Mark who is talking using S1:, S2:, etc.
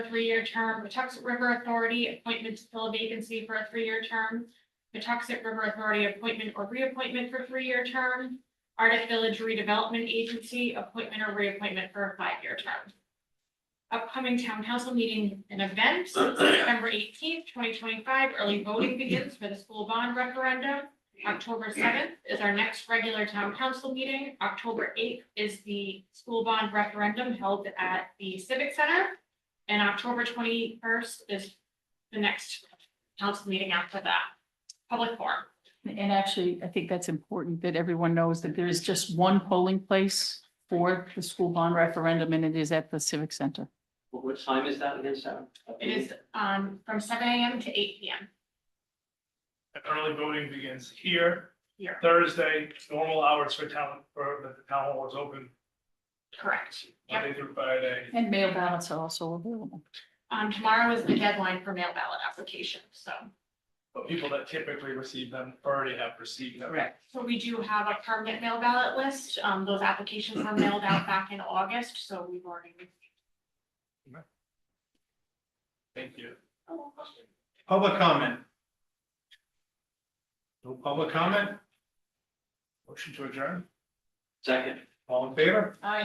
S1: three-year term, Patuxent River Authority, appointment to fill a vacancy for a three-year term. Patuxent River Authority, appointment or reappointment for three-year term. Arctic Village Redevelopment Agency, appointment or reappointment for a five-year term. Upcoming town council meeting and events, September eighteenth, twenty twenty-five, early voting begins for the school bond referendum. October seventh is our next regular town council meeting. October eighth is the school bond referendum held at the Civic Center. And October twenty-first is the next council meeting after that, public forum.
S2: And actually, I think that's important that everyone knows that there is just one polling place for the school bond referendum and it is at the Civic Center.
S3: What what time is that again, Sarah?
S1: It is, um, from seven AM to eight PM
S4: And early voting begins here,
S1: here,
S4: Thursday, normal hours for town, for the town hall is open
S1: correct? Yep.
S4: Monday through Friday.
S2: And mail ballots are also available.
S1: Um, tomorrow is the deadline for mail ballot application, so.
S4: But people that typically receive them already have received them.
S1: So we do have a permanent mail ballot list. Um, those applications were mailed out back in August, so we've already.
S4: Thank you.
S5: Public comment. No public comment? Motion to adjourn,
S3: Second.
S5: all in favor?
S1: I